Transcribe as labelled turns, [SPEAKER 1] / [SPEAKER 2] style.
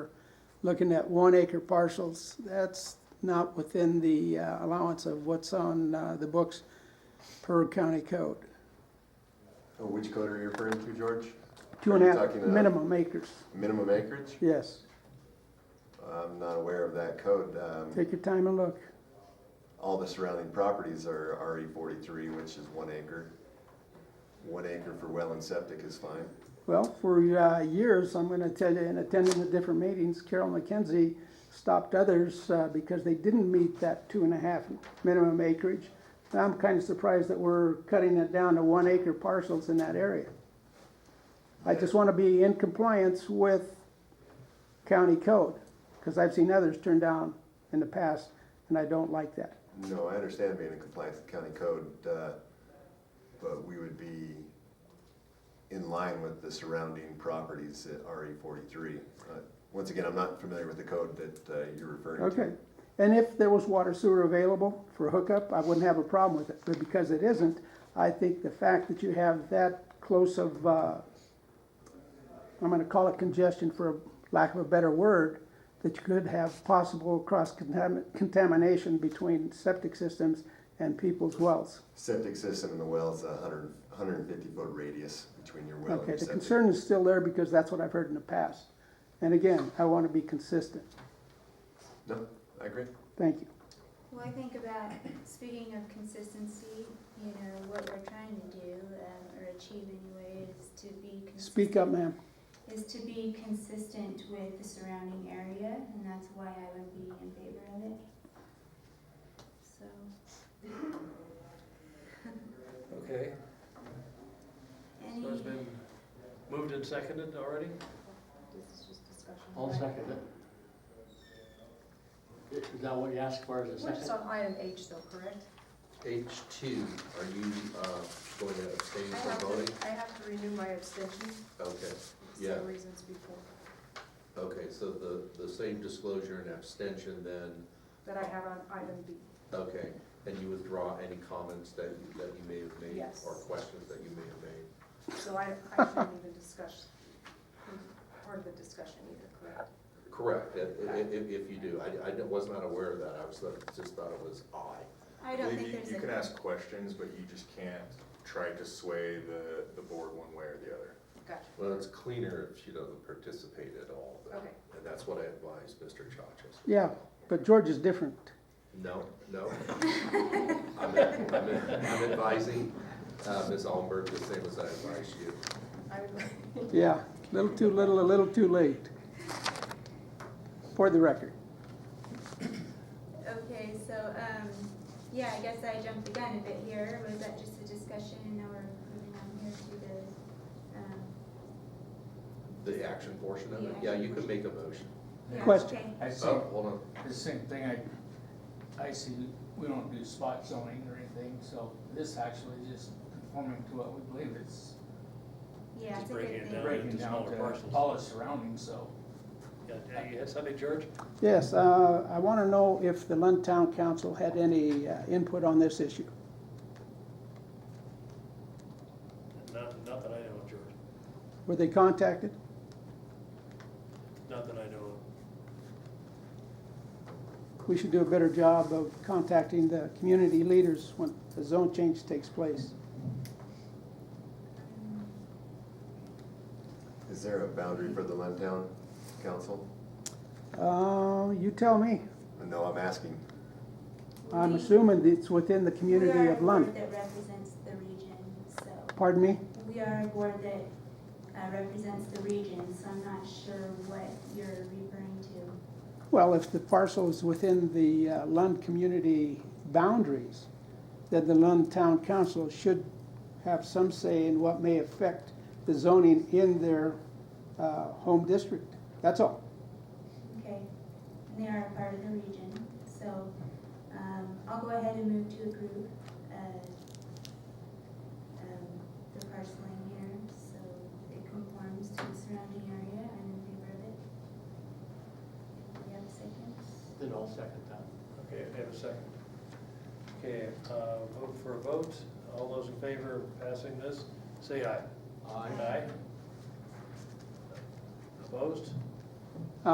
[SPEAKER 1] looking at one acre parcels, that's not within the uh, allowance of what's on uh, the books per county code.
[SPEAKER 2] Oh, Which code are you referring to, George?
[SPEAKER 1] Two and
[SPEAKER 2] Are
[SPEAKER 1] a
[SPEAKER 2] you
[SPEAKER 1] half
[SPEAKER 2] talking about
[SPEAKER 1] minimum acres,
[SPEAKER 2] Minimum acreage?
[SPEAKER 1] yes.
[SPEAKER 2] I'm not aware of that code. Um,
[SPEAKER 1] Take your time and look.
[SPEAKER 2] All the surrounding properties are RE forty-three, which is one acre. One acre for well and septic is fine.
[SPEAKER 1] Well, for uh, years, I'm going to tell you, in attending the different meetings, Carol McKenzie stopped others uh, because they didn't meet that two and a half minimum acreage. Now I'm kind of surprised that we're cutting it down to one acre parcels in that area. I just want to be in compliance with county code, because I've seen others turned down in the past, and I don't like that.
[SPEAKER 2] No, I understand being in compliance with county code, uh, but we would be in line with the surrounding properties at RE forty-three. Uh, Once again, I'm not familiar with the code that uh, you're referring to.
[SPEAKER 1] Okay, and if there was water sewer available for hookup, I wouldn't have a problem with it, but because it isn't, I think the fact that you have that close of, uh, I'm gonna call it congestion for lack of a better word, that you could have possible cross contamination between septic systems and people's wells.
[SPEAKER 2] Septic system and the well is a hundred, hundred and fifty foot radius between your well and
[SPEAKER 1] Okay,
[SPEAKER 2] your
[SPEAKER 1] the
[SPEAKER 2] septic.
[SPEAKER 1] concern is still there because that's what I've heard in the past. And again, I wanna be consistent,
[SPEAKER 2] No, I agree.
[SPEAKER 1] thank you.
[SPEAKER 3] Well, I think about, speaking of consistency, you know, what we're trying to do, um, or achieve anyway, is to be. cons-
[SPEAKER 1] Speak up, ma'am.
[SPEAKER 3] Is to be consistent with the surrounding area, and that's why I would be in favor of it. So,
[SPEAKER 4] Okay, so
[SPEAKER 3] any,
[SPEAKER 4] it's been moved and seconded already?
[SPEAKER 3] this is just discussion.
[SPEAKER 5] I'll second it. Is that what you asked for, is
[SPEAKER 6] We're
[SPEAKER 5] a
[SPEAKER 6] just
[SPEAKER 5] second?
[SPEAKER 6] on item H though, correct?
[SPEAKER 7] H two, are you, uh, going to abstain
[SPEAKER 6] I have
[SPEAKER 7] from voting?
[SPEAKER 6] to, I have to renew my abstention
[SPEAKER 7] Okay,
[SPEAKER 6] for
[SPEAKER 7] Yeah.
[SPEAKER 6] the reasons before,
[SPEAKER 7] okay, so the, the same disclosure and abstention then,
[SPEAKER 6] that I have on item B.
[SPEAKER 7] okay. And you withdraw any comments that, you- that you may have made?
[SPEAKER 6] Yes.
[SPEAKER 7] Or questions that you may have made?
[SPEAKER 6] So I, I shouldn't even discuss, part of the discussion either, correct?
[SPEAKER 7] Correct, if, if, if you do, I, I was not aware of that, I was, just thought it was I.
[SPEAKER 3] I don't think there's a.
[SPEAKER 8] You can ask questions, but you just can't try to sway the, the board one way or the other.
[SPEAKER 6] Gotcha,
[SPEAKER 7] Well, it's cleaner if she doesn't participate at all, then.
[SPEAKER 6] Okay.
[SPEAKER 7] and that's what I advise Mr. Chachas.
[SPEAKER 1] Yeah, but George is different.
[SPEAKER 7] No, no. I'm, I'm, I'm advising, uh, Ms. Allenberg the same as I advise you.
[SPEAKER 6] I would,
[SPEAKER 1] Yeah, little too little, a little too late. For the record.
[SPEAKER 3] Okay, so, um, yeah, I guess I jumped the gun a bit here, was that just a discussion, and now we're moving on here to the, um,
[SPEAKER 7] The action portion of it,
[SPEAKER 3] Yeah.
[SPEAKER 7] yeah, you can make a motion.
[SPEAKER 3] yeah,
[SPEAKER 1] Question.
[SPEAKER 3] okay.
[SPEAKER 9] I see,
[SPEAKER 7] Oh, hold on,
[SPEAKER 9] the same thing, I, I see, we don't do spot zoning or anything, so this actually is just conforming to what we believe it's
[SPEAKER 3] Yeah, it's a good
[SPEAKER 4] breaking it
[SPEAKER 3] thing.
[SPEAKER 4] down.
[SPEAKER 9] breaking
[SPEAKER 4] to
[SPEAKER 9] down
[SPEAKER 4] smaller
[SPEAKER 9] to
[SPEAKER 4] parcels.
[SPEAKER 9] all the surrounding, so.
[SPEAKER 4] Yeah, uh, you had something, George?
[SPEAKER 1] Yes, uh, I want to know if the Lund Town Council had any uh, input on this issue.
[SPEAKER 4] Not, not that I know of, George.
[SPEAKER 1] Were they contacted?
[SPEAKER 4] Not that I know
[SPEAKER 1] We should do a better job of contacting the community leaders when the zone change takes place.
[SPEAKER 2] Is there a boundary for the Lentown Council?
[SPEAKER 1] Uh, You tell me.
[SPEAKER 2] No, I'm asking.
[SPEAKER 1] I'm
[SPEAKER 3] We-
[SPEAKER 1] assuming it's within the community of
[SPEAKER 3] We
[SPEAKER 1] Lund.
[SPEAKER 3] are a board that represents the region, so,
[SPEAKER 1] Pardon me?
[SPEAKER 3] we are a board that uh, represents the region, so I'm not sure what you're referring to.
[SPEAKER 1] Well, if the parcel is within the uh, Lund community boundaries, then the Lund Town Council should have some say in what may affect the zoning in their uh, home district. That's all.
[SPEAKER 3] Okay, and they are a part of the region, so, um, I'll go ahead and move to approve, uh, um, the parceling here, so it conforms to the surrounding area, I'm in favor of it. Do we have a second?
[SPEAKER 5] Then I'll second that.
[SPEAKER 4] of. Okay, I have a second. Okay, uh, vote for a vote. All those in favor of passing this, say aye.
[SPEAKER 5] Aye.
[SPEAKER 4] Aye. Opposed?